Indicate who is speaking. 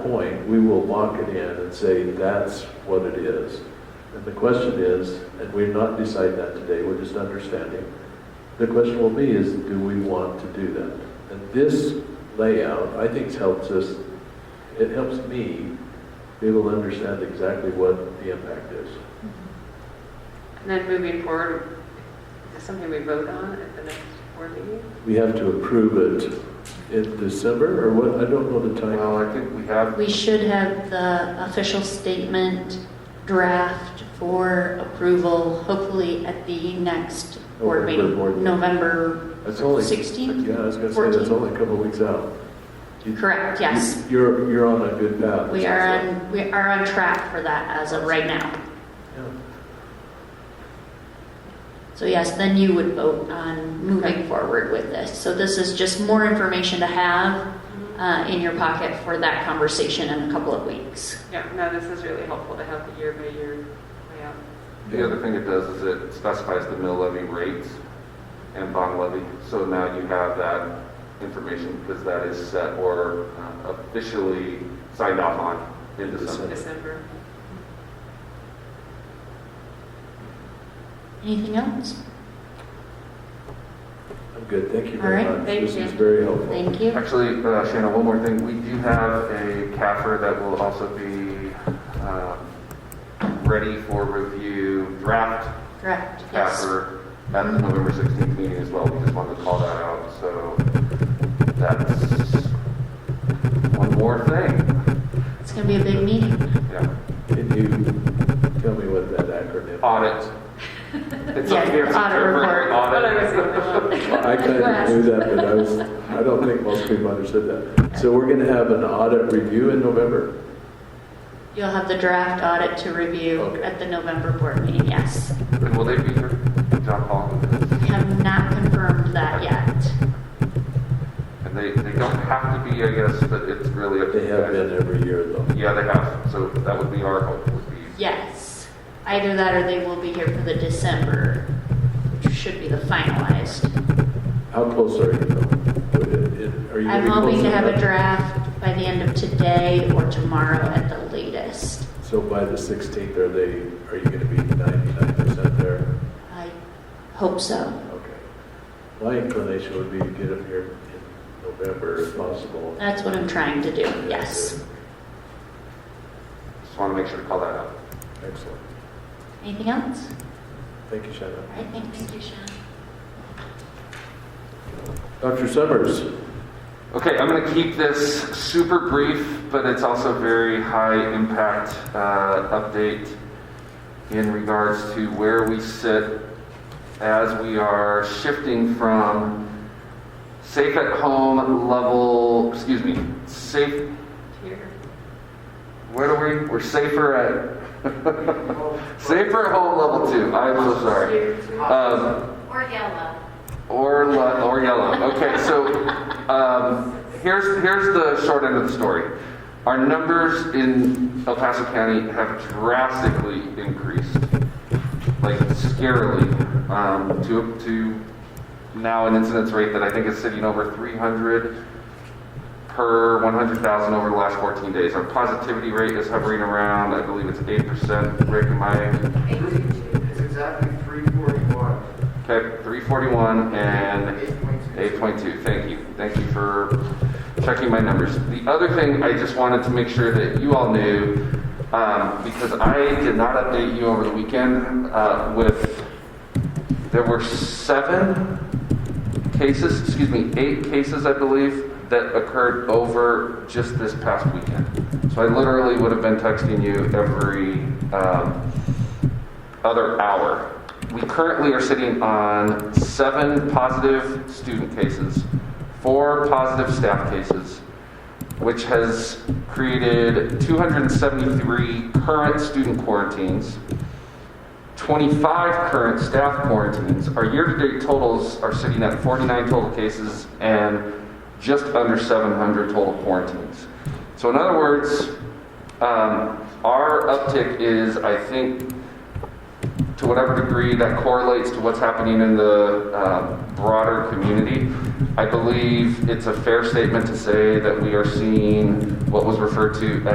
Speaker 1: point, we will lock it in and say, that's what it is. And the question is, and we're not deciding that today, we're just understanding, the question will be is, do we want to do that? And this layout, I think, helps us, it helps me be able to understand exactly what the impact is.
Speaker 2: And then moving forward, is this something we vote on at the next board meeting?
Speaker 1: We have to approve it in December, or what, I don't know the time.
Speaker 3: Well, I think we have,
Speaker 4: We should have the official statement draft for approval, hopefully at the next board
Speaker 1: November
Speaker 4: meeting,
Speaker 1: board meeting.
Speaker 4: November
Speaker 1: It's only,
Speaker 4: 16th?
Speaker 1: yeah, I was gonna say, that's
Speaker 4: 14?
Speaker 1: only a couple weeks out. You-
Speaker 4: Correct, yes.
Speaker 1: You're, you're on a good path.
Speaker 4: We are on, we are on track for that as of right now.
Speaker 1: Yeah.
Speaker 4: So yes, then you would vote on moving forward with this. So this is just more information to have uh, in your pocket for that conversation in a couple of weeks.
Speaker 2: Yeah, no, this is really helpful to have the year by year layout.
Speaker 3: the other thing it does is it specifies the mill levy rates and bond levy. So now you have that information because that is set or uh, officially signed off on in December.
Speaker 2: December.
Speaker 4: Anything else?
Speaker 1: I'm good, thank you very
Speaker 4: All right,
Speaker 1: much.
Speaker 2: thank
Speaker 1: This
Speaker 2: you.
Speaker 1: is very helpful.
Speaker 4: Thank you.
Speaker 3: Actually, uh, Shannon, one more thing. We do have a CAFR that will also be um, ready for review, draft
Speaker 4: Correct, yes.
Speaker 3: CAFR at the November 16th meeting as well. We just wanted to call that out, so that's one more thing.
Speaker 4: It's going to be a big meeting.
Speaker 3: Yeah.
Speaker 1: Can you tell me what that acronym?
Speaker 3: Audit. It's up
Speaker 4: Yeah,
Speaker 3: here, it's
Speaker 4: audit report.
Speaker 2: But I
Speaker 3: audit.
Speaker 2: was thinking,
Speaker 1: I kind of knew that, but I was, I don't think most people understood that. So we're gonna have an audit review in November.
Speaker 4: You'll have the draft audit to review
Speaker 1: Okay.
Speaker 4: at the November board meeting, yes.
Speaker 3: And will they be here? John Paul?
Speaker 4: We have not confirmed that yet.
Speaker 3: And they, they don't have to be, I guess, but it's really up to
Speaker 1: They
Speaker 3: you
Speaker 1: have
Speaker 3: guys.
Speaker 1: been every year though.
Speaker 3: Yeah, they have, so that would be our hope, would be
Speaker 4: Yes. Either that or they will be here for the December, which should be the finalized.
Speaker 1: How close are you though? Would it- it- are you
Speaker 4: I'm
Speaker 1: gonna be
Speaker 4: hoping
Speaker 1: close
Speaker 4: to have a
Speaker 1: enough?
Speaker 4: draft by the end of today or tomorrow at the latest.
Speaker 1: So by the 16th, are they, are you gonna be 99% there?
Speaker 4: I hope so.
Speaker 1: Okay. My inclination would be to get them here in November if possible.
Speaker 4: That's what I'm trying to do, yes.
Speaker 3: Just want to make sure to call that out.
Speaker 1: Excellent.
Speaker 4: Anything else?
Speaker 1: Thank you, Shannon.
Speaker 4: All right, thanks, Shannon.
Speaker 1: Dr. Summers?
Speaker 3: Okay, I'm going to keep this super brief, but it's also very high impact uh, update in regards to where we sit as we are shifting from safe at home level, excuse me, safe,
Speaker 2: Here.
Speaker 3: where are we? We're safer at, safer at home level two. I'm so sorry.
Speaker 2: Here, too.
Speaker 3: Um,
Speaker 4: Or yellow.
Speaker 3: Or, le- or yellow. Okay, so um, here's, here's the short end of the story. Our numbers in El Paso County have drastically increased, like scarily, um, to, to now an incidence rate that I think is sitting over 300 per 100,000 over the last 14 days. Our positivity rate is hovering around, I believe it's 8%. Rick, am I
Speaker 5: It's exactly three forty-one.
Speaker 3: Okay, 341 and
Speaker 5: 8.2.
Speaker 3: 8.2, thank you. Thank you for checking my numbers. The other thing I just wanted to make sure that you all knew, um, because I did not update you over the weekend uh, with, there were seven cases, excuse me, eight cases, I believe, that occurred over just this past weekend. So I literally would have been texting you every um, other hour. We currently are sitting on seven positive student cases, four positive staff cases, which has created 273 current student quarantines, 25 current staff quarantines. Our year-to-date totals are sitting at 49 total cases and just under 700 total quarantines. So in other words, um, our uptick is, I think, to whatever degree that correlates to what's happening in the um, broader community, I believe it's a fair statement to say that we are seeing what was referred to